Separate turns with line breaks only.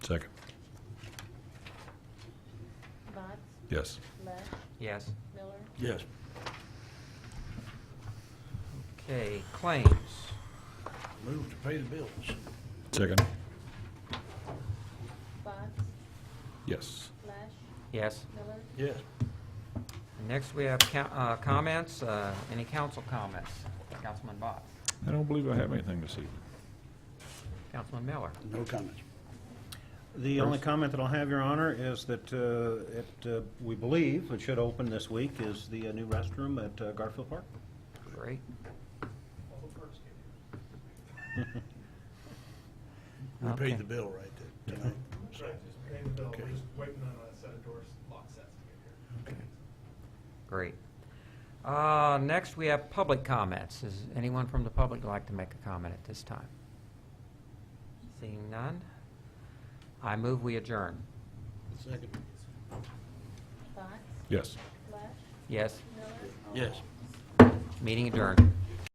Second.
Box,
Yes.
Lesh,
Yes.
Miller,
Yes.
Okay, claims.
Move to pay the bills.
Second.
Box,
Yes.
Lesh,
Yes.
Miller,
Yes.
Next, we have co- uh, comments. Uh, Any council comments? Councilman Box,
I don't believe I have anything to see.
Councilman Miller.
No comments.
The only comment that I'll have, Your Honor, is that uh, it, uh, we believe it should open this week is the uh, new restroom at uh, Garfield Park.
Great.
We
Okay.
paid the bill right there tonight. so.
Right, just paying the bill,
Okay.
we're just waiting on a set of doors, lock sets to get here.
Great. Uh, Next, we have public comments. Is anyone from the public like to make a comment at this time? Seeing none, I move we adjourn.
Second.
Box,
Yes.
Lesh,
Yes,
Miller,
Yes.
meeting adjourned.